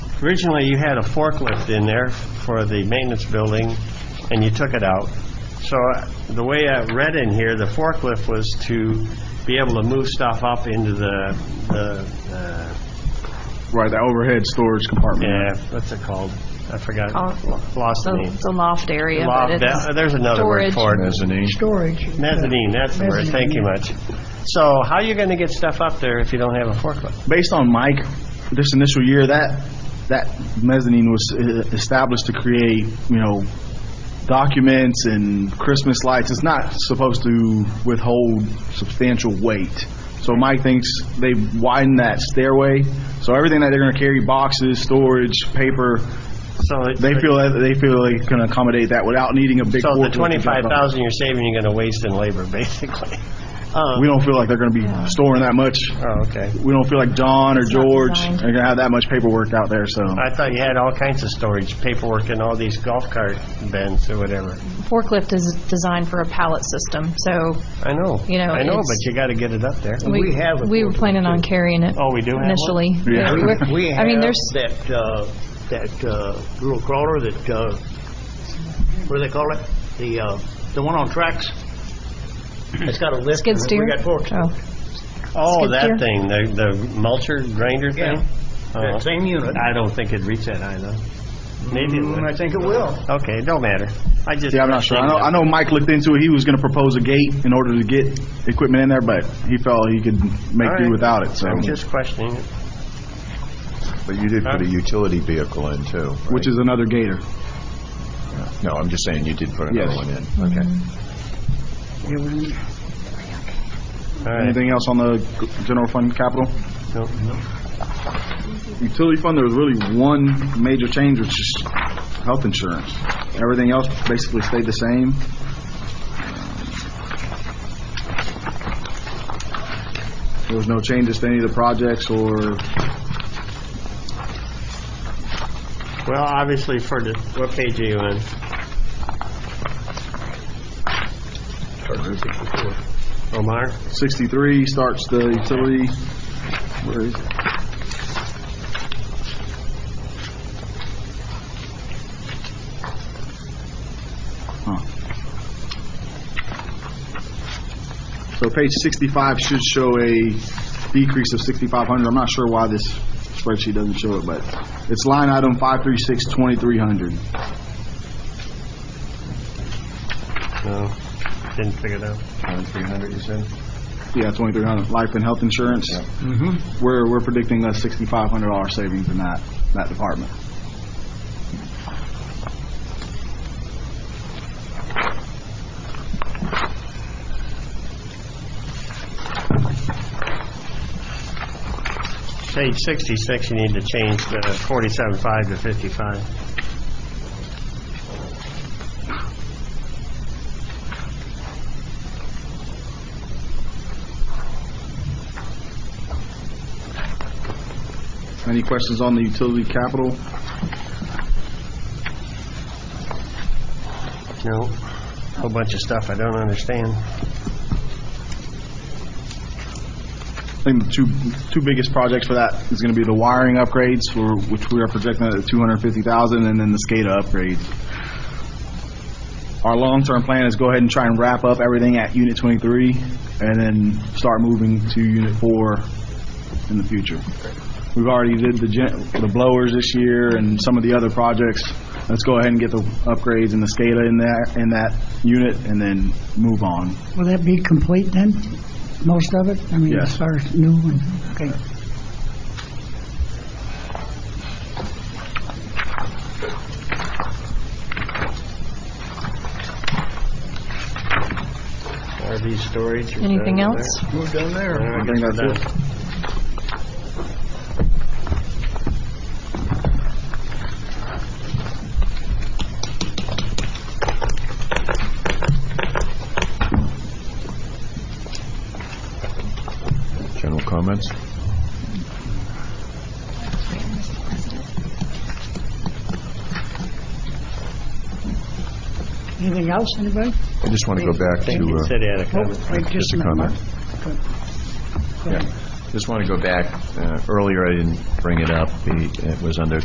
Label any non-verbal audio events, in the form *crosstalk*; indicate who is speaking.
Speaker 1: originally you had a forklift in there for the maintenance building, and you took it out. So uh, the way I read in here, the forklift was to be able to move stuff up into the, the, uh,
Speaker 2: Right, the overhead storage compartment.
Speaker 1: yeah, what's it called? I forgot,
Speaker 3: Oh,
Speaker 1: lost the name.
Speaker 3: The the loft area, but
Speaker 1: Loft,
Speaker 3: it's...
Speaker 1: that- there's another word
Speaker 3: storage.
Speaker 1: for it.
Speaker 2: Mezzanine.
Speaker 4: storage.
Speaker 1: Mezzanine, that's the word, thank you much. So how are you going to get stuff up there if you don't have a forklift?
Speaker 2: Based on Mike, this initial year, that, that mezzanine was uh, established to create, you know, documents and Christmas lights. It's not supposed to withhold substantial weight. So Mike thinks they widened that stairway, so everything that they're gonna carry, boxes, storage, paper,
Speaker 1: So it-
Speaker 2: they feel, that they feel they can accommodate that without needing a big.
Speaker 1: So the
Speaker 2: forklift to jump up.
Speaker 1: 25,000 you're saving, you're going to waste in labor, *laughs* basically. Um,
Speaker 2: We don't feel like they're gonna be storing that much
Speaker 1: Oh, okay.
Speaker 2: we don't feel like John or
Speaker 3: not
Speaker 2: George are
Speaker 3: designed.
Speaker 2: going to have that much paperwork out there, so.
Speaker 1: I thought you had all kinds of storage, paperwork and all these golf cart bins or whatever.
Speaker 3: Forklift is designed for a pallet system, so
Speaker 1: I know.
Speaker 3: You know,
Speaker 1: I know,
Speaker 3: it's-
Speaker 1: but you got to get it up there.
Speaker 3: we...
Speaker 5: have a
Speaker 3: We were planning on carrying it.
Speaker 1: Oh, we do have one?
Speaker 3: Initially.
Speaker 2: Yeah.
Speaker 3: We- we're-
Speaker 5: *laughs* We
Speaker 3: I
Speaker 5: have
Speaker 3: mean, there's,
Speaker 5: that, uh, that uh, little crawler that, uh, what do they call it? The, uh, the one on tracks? It's got a lift.
Speaker 3: skid
Speaker 5: and
Speaker 3: steer.
Speaker 5: We got forks.
Speaker 3: Oh.
Speaker 1: Oh,
Speaker 3: skid steer.
Speaker 1: that thing, the the mulcher grinder
Speaker 5: Yeah.
Speaker 1: thing? Oh.
Speaker 5: That same unit.
Speaker 1: I don't think it'd reach that high, though. Maybe it
Speaker 5: Mm, I
Speaker 1: would.
Speaker 5: think it will.
Speaker 1: Okay, it don't matter. I just...
Speaker 2: Yeah, I'm not sure. I know, I know Mike looked into it. He was going to propose a gate in order to get equipment in there, but he felt he could make
Speaker 1: All
Speaker 2: do
Speaker 1: right.
Speaker 2: without it, so.
Speaker 1: I'm just questioning it.
Speaker 6: But you did put a utility vehicle in too, right?
Speaker 2: Which is another gator.
Speaker 6: No, I'm just saying you did put another
Speaker 2: Yes.
Speaker 6: one in. Okay.
Speaker 1: All right.
Speaker 2: Anything else on the g- general fund capital?
Speaker 1: Nope.
Speaker 2: Utility fund, there was really one major change, which is health insurance. Everything else basically stayed the same. There was no changes to any of the projects or
Speaker 1: Well, obviously for the, what page are you on? Omar?
Speaker 2: 63 starts the utility, where is it? Huh. So page 65 should show a decrease of 6,500. I'm not sure why this spreadsheet doesn't show it, but it's line item 536, 2300.
Speaker 1: No, didn't figure it out.
Speaker 6: Twenty-three hundred, you said?
Speaker 2: Yeah, 2300, life and health insurance. We're, we're predicting a $6,500 savings in that, that department.
Speaker 1: Page 66, you need to change the 47.5 to 55.
Speaker 2: Any questions on the utility capital?
Speaker 1: No, whole bunch of stuff I don't understand.
Speaker 2: I think the two, two biggest projects for that is gonna be the wiring upgrades, for, which we are projecting at 250,000, and then the SCADA upgrades. Our long-term plan is go ahead and try and wrap up everything at Unit 23, and then start moving to Unit 4 in the future. We've already did the gen, the blowers this year and some of the other projects. Let's go ahead and get the upgrades and the SCADA in that, in that unit, and then move on.
Speaker 4: Will that be complete then? Most of it? I mean,
Speaker 2: Yes.
Speaker 4: as far as new and, okay.
Speaker 1: RV storage. is
Speaker 3: anything
Speaker 1: under
Speaker 3: else?
Speaker 5: We're done
Speaker 1: there.
Speaker 5: there.
Speaker 1: Yeah,
Speaker 2: I think
Speaker 1: guess
Speaker 2: that's
Speaker 1: we're
Speaker 6: General comments?
Speaker 4: Anything else, anybody?
Speaker 6: I just want to go back to,
Speaker 1: done. You said
Speaker 6: uh,
Speaker 1: he had a
Speaker 4: Oh,
Speaker 1: comment.
Speaker 4: wait,
Speaker 6: just a
Speaker 4: minute,
Speaker 6: comment.
Speaker 4: Mark.
Speaker 6: Yeah. Just want to go back, uh, earlier I didn't bring it up, The- it was under